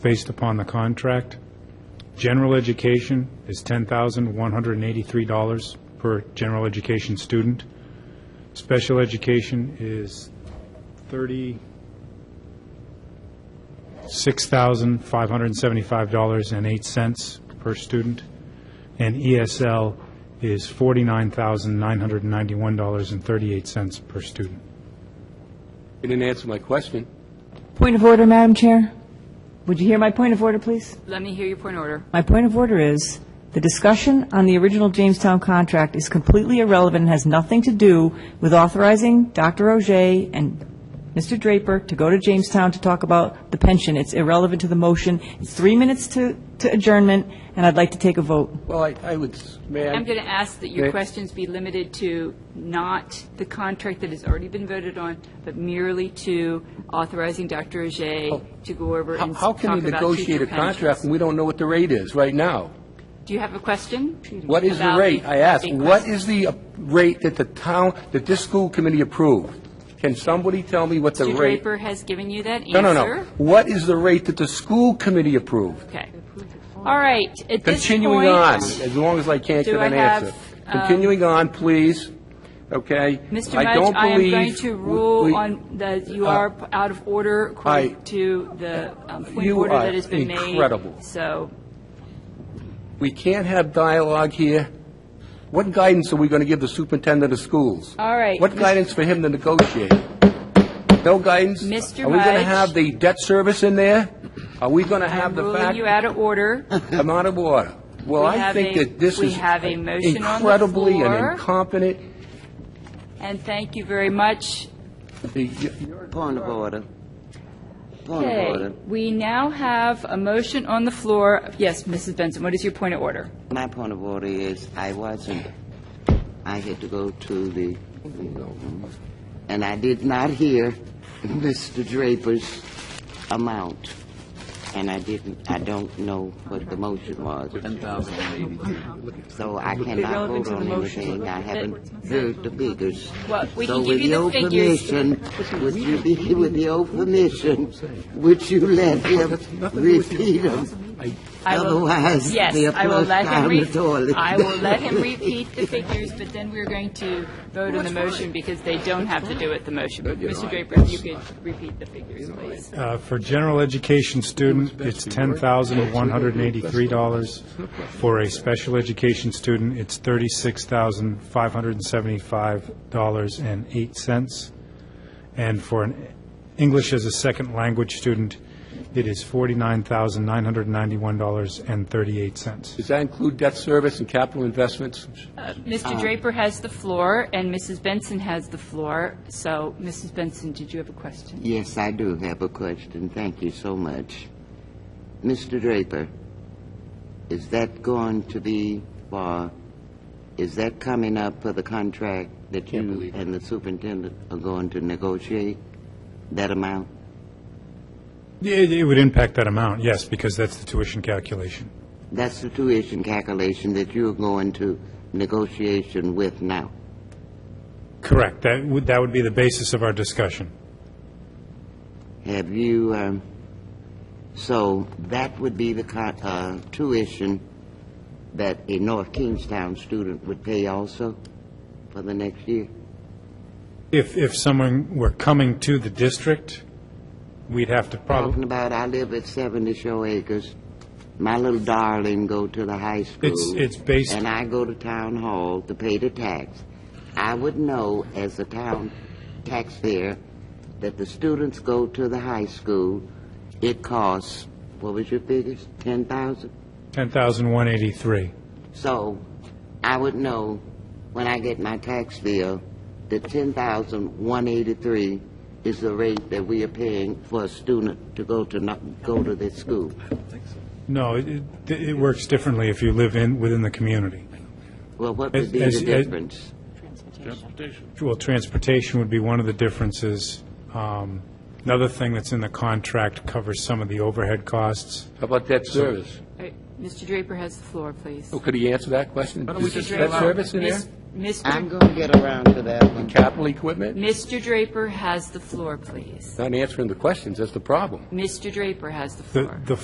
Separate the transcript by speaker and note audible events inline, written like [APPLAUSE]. Speaker 1: based upon the contract. General education is $10,183 per general education student. Special education is $36,575.08 per student, and ESL is $49,991.38 per student.
Speaker 2: You didn't answer my question.
Speaker 3: Point of order, Madam Chair. Would you hear my point of order, please?
Speaker 4: Let me hear your point of order.
Speaker 3: My point of order is, the discussion on the original Jamestown contract is completely irrelevant and has nothing to do with authorizing Dr. Ogier and Mr. Draper to go to Jamestown to talk about the pension. It's irrelevant to the motion. It's three minutes to to adjournment, and I'd like to take a vote.
Speaker 2: Well, I, I would, s- may I?
Speaker 4: I'm going to ask that your
Speaker 2: Okay.
Speaker 4: questions be limited to not the contract that has already been voted on, but merely to authorizing Dr. Ajay to go over
Speaker 2: Oh. How-
Speaker 4: and s-
Speaker 2: How
Speaker 4: talk
Speaker 2: can we
Speaker 4: about
Speaker 2: negotiate
Speaker 4: future
Speaker 2: a contract
Speaker 4: pensions.
Speaker 2: when we don't know what the rate is right now?
Speaker 4: Do you have a question?
Speaker 2: What is the
Speaker 4: about
Speaker 2: rate? I asked,
Speaker 4: a
Speaker 2: what
Speaker 4: question?
Speaker 2: is the uh, rate that the town, that this school committee approved? Can somebody tell me what the
Speaker 4: Mr.
Speaker 2: rate?
Speaker 4: Draper has given you that
Speaker 2: No,
Speaker 4: answer.
Speaker 2: no, no. What is the rate that the school committee approved?
Speaker 4: Okay. All right, at this point...
Speaker 2: Continuing on, as long as I can't
Speaker 4: do
Speaker 2: get
Speaker 4: I
Speaker 2: an
Speaker 4: have,
Speaker 2: answer.
Speaker 4: um,
Speaker 2: Continuing on, please, okay?
Speaker 4: Mr.
Speaker 2: I
Speaker 4: Mudge,
Speaker 2: don't
Speaker 4: I am
Speaker 2: believe
Speaker 4: going to
Speaker 2: we-
Speaker 4: rule
Speaker 2: we-
Speaker 4: on the, you
Speaker 2: Uh,
Speaker 4: are p- out of order
Speaker 2: I-
Speaker 4: according to the um, point of
Speaker 2: You
Speaker 4: order
Speaker 2: are
Speaker 4: that has been made.
Speaker 2: incredible.
Speaker 4: So,
Speaker 2: We can't have dialogue here. What guidance are we going to give the superintendent of schools?
Speaker 4: All right.
Speaker 2: What guidance for him to negotiate? No guidance?
Speaker 4: Mr.
Speaker 2: Are we going to
Speaker 4: Mudge.
Speaker 2: have the debt service in there? Are we going to have
Speaker 4: I'm
Speaker 2: the
Speaker 4: ruling
Speaker 2: fact?
Speaker 4: you out of
Speaker 2: [LAUGHS]
Speaker 4: order.
Speaker 2: I'm out of order. Well,
Speaker 4: We
Speaker 2: I
Speaker 4: have
Speaker 2: think
Speaker 4: a-
Speaker 2: that this
Speaker 4: we
Speaker 2: is
Speaker 4: have a motion on the
Speaker 2: incredibly and
Speaker 4: floor.
Speaker 2: incompetent.
Speaker 4: And thank you very much.
Speaker 2: The-
Speaker 5: Point of order. Point of
Speaker 4: Okay,
Speaker 5: order.
Speaker 4: we now have a motion on the floor. Yes, Mrs. Benson, what is your point of order?
Speaker 5: My point of order is I wasn't, I had to go to the, and I did not hear [LAUGHS] Mr. Draper's amount. And I didn't, I don't know what the motion was. So I cannot
Speaker 3: Irrelevant
Speaker 5: vote
Speaker 3: to the
Speaker 5: on
Speaker 3: motion.
Speaker 5: anything. I haven't heard the figures.
Speaker 4: Well, we
Speaker 5: So
Speaker 4: can give
Speaker 5: with
Speaker 4: you the
Speaker 5: your
Speaker 4: figures.
Speaker 5: permission, [LAUGHS] With you be, with your permission, would you let him repeat them?
Speaker 4: I will-
Speaker 5: Otherwise,
Speaker 4: yes,
Speaker 5: they're
Speaker 4: I will let
Speaker 5: flushed
Speaker 4: him
Speaker 5: down the
Speaker 4: re-
Speaker 5: toilet.
Speaker 4: I will let him repeat
Speaker 2: [LAUGHS]
Speaker 4: the figures, but then we're going to vote on the motion because they don't have to do with the motion. But Mr. Draper, if you could repeat the figures, please.
Speaker 1: Uh, For general education student, it's $10,183. For a special education student, it's $36,575.08. And for an English as a second language student, it is $49,991.38.
Speaker 2: Does that include debt service and capital investments?
Speaker 4: Mr. Uh,
Speaker 2: Uh-huh.
Speaker 4: Draper has the floor, and Mrs. Benson has the floor. So, Mrs. Benson, did you have a question?
Speaker 5: Yes, I do have a question. Thank you so much. Mr. Draper, is that going to be for, is that coming up for the contract that you and the superintendent are going to negotiate? That amount?
Speaker 1: It it would impact that amount, yes, because that's the tuition calculation.
Speaker 5: That's the tuition calculation that you're going to negotiation with now.
Speaker 1: Correct. That would that would be the basis of our discussion.
Speaker 5: Have you, um, so that would be the con- uh, tuition that a North Kingstown student would pay also for the next year?
Speaker 1: If, if someone were coming to the district, we'd have to
Speaker 5: Talking
Speaker 1: probably,
Speaker 5: about, I live at 70 Shore Acres. My little darling go to the high school.
Speaker 1: It's- it's based-
Speaker 5: And I go to town hall to pay the tax. I would know as a town taxpayer that the students go to the high school. It costs, what was your figures, 10,000?
Speaker 1: 10,183.
Speaker 5: So I would know when I get my tax bill that ten thousand one eighty-three is the rate that we are paying for a student to go to not, go to this school.
Speaker 1: No, it, it- it works differently if you live in, within the community.
Speaker 5: Well, what would
Speaker 1: As-
Speaker 5: be the
Speaker 1: as- as-
Speaker 5: difference?
Speaker 1: Well, transportation would be one of the differences. Um, Another thing that's in the contract covers some of the overhead costs.
Speaker 2: How about debt service?
Speaker 4: All right, Mr. Draper has the floor, please.
Speaker 2: Oh, Could he answer that question?
Speaker 4: Mr.
Speaker 2: Is
Speaker 4: Draper.
Speaker 2: debt service in there?
Speaker 4: Miss- Mr.
Speaker 5: I'm gonna get around to that one.
Speaker 2: Capital equipment?
Speaker 4: Mr. Draper has the floor, please.
Speaker 2: Not answering the questions, that's the problem.
Speaker 4: Mr. Draper has the
Speaker 1: The,
Speaker 4: floor.
Speaker 1: the